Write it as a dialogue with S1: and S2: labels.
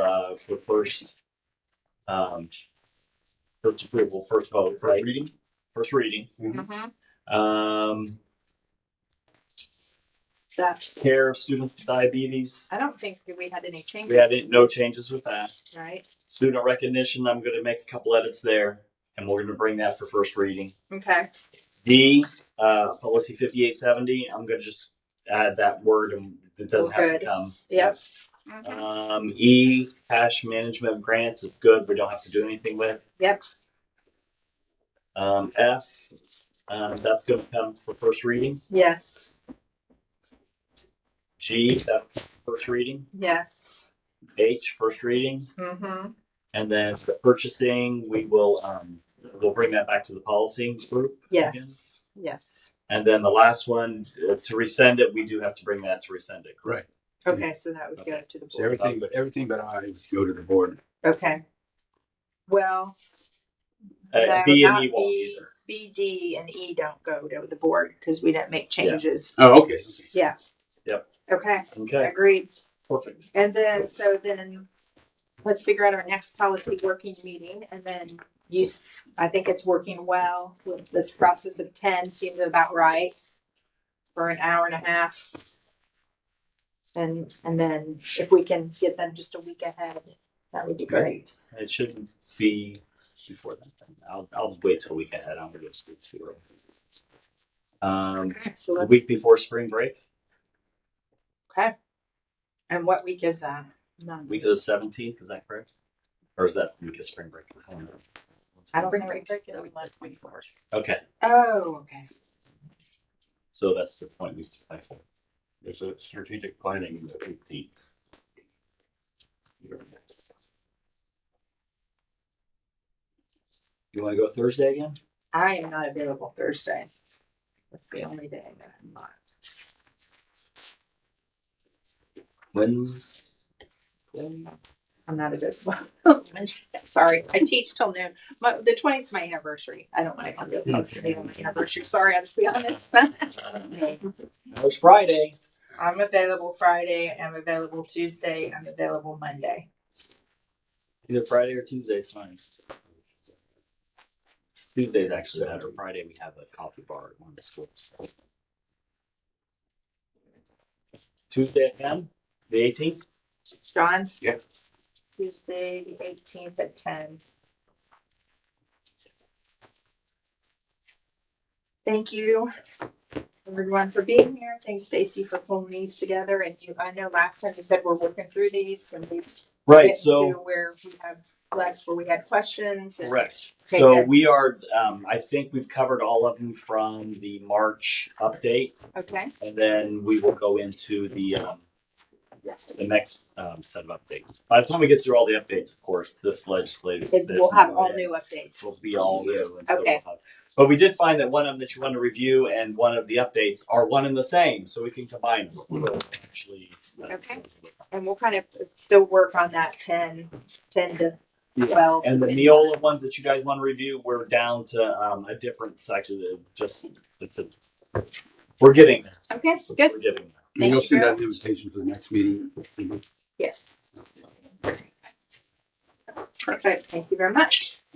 S1: uh, for first, um, first approval, first vote,
S2: First
S1: right?
S2: reading? Mm-hmm.
S1: First reading.
S3: Mhm.
S1: Um,
S3: That,
S1: care of students with diabetes.
S3: I don't think we had any
S1: We had
S3: changes,
S1: it- no changes with that.
S3: right?
S1: Student recognition, I'm going to make a couple edits there, and we're going to bring that for first reading.
S3: Okay,
S1: D, uh, policy fifty-eight seventy, I'm gonna just add that word and it doesn't have
S3: Good.
S1: to come.
S3: Yep.
S1: Um, E, cash management grants is good, we don't have to do anything with.
S3: yep,
S1: Um, F, um, that's gonna come for first reading.
S3: yes,
S1: G, that first reading.
S3: yes.
S1: H, first reading.
S3: Mm-hmm.
S1: And then the purchasing, we will, um, we'll bring that back to the policy group.
S3: Yes, yes.
S1: And then the last one, uh, to rescind it, we do have to bring that to rescind it.
S2: Right.
S3: Okay, so that would go to the
S2: So
S3: board.
S2: everything, but everything but I would go to the board.
S3: Okay. Well,
S1: Uh,
S3: no,
S1: B and
S3: not
S1: E won't
S3: B,
S1: either.
S3: B, D and E don't go to the board because we didn't make changes.
S2: Oh, okay.
S3: Yeah.
S1: Yep.
S3: Okay,
S1: Okay,
S3: agreed.
S1: perfect.
S3: And then, so then, let's figure out our next policy working meeting and then use, I think it's working well. This process of ten seemed about right for an hour and a half. And, and then if we can get them just a week ahead, that would be great.
S1: It shouldn't be before that. I'll, I'll wait till we get ahead. I'm gonna just do two. Um,
S3: So
S1: the
S3: let's,
S1: week before spring break,
S3: okay. And what week is that? None.
S1: week of the seventeenth, is that correct? Or is that the week of spring break? I don't know.
S3: I don't
S4: Spring
S3: think.
S4: break is the last week.
S1: Okay,
S3: Oh, okay.
S1: so that's the point we should play for.
S5: There's a strategic planning that we need.
S1: You wanna go Thursday again?
S3: I am not available Thursday. That's the only day that I'm not.
S1: Wednesday?
S3: I'm not a good Sorry, I teach till noon. My, the 20th is my anniversary. I don't want to come to a post meeting on my anniversary. Sorry, I'll just be honest.
S1: No, It's Friday.
S3: I'm available Friday. I'm available Tuesday. I'm available Monday.
S1: Either Friday or Tuesday is fine. Tuesday's actually better. Friday, we have a coffee bar at one of the schools. Tuesday at ten, the eighteenth?
S3: John?
S5: Yeah.
S3: Tuesday, the 18th at 10. Thank you, everyone, for being here. Thanks, Stacy, for pulling these together. And you, I know last time you said we're working through these and these
S1: Right,
S3: get to
S1: so,
S3: Where we have less, where we had questions. and-
S1: correct.
S3: Okay,
S1: So
S3: good.
S1: we are, um, I think we've covered all of them from the March update.
S3: Okay,
S1: And then we will go into the, um, the next, um, set of updates. By the time we get through all the updates, of course, this legislative.
S3: Because we'll
S1: session
S3: have all
S1: will
S3: new updates.
S1: will be all new. and so we'll
S3: Okay.
S1: have- But we did find that one of them that you want to review and one of the updates are one and the same, so we can combine them. We'll Actually. that's-
S3: Okay. And we'll kind of still work on that ten, ten to
S1: Yeah.
S3: twelve.
S1: And the Neola ones that you guys want to review, we're down to, um, a different section, that just, it's a, we're getting there.
S3: Okay, good,
S1: We're getting there.
S2: And you'll
S3: Thank
S2: see
S3: you.
S2: that invitation for the next meeting.
S3: yes. Perfect, thank you very much.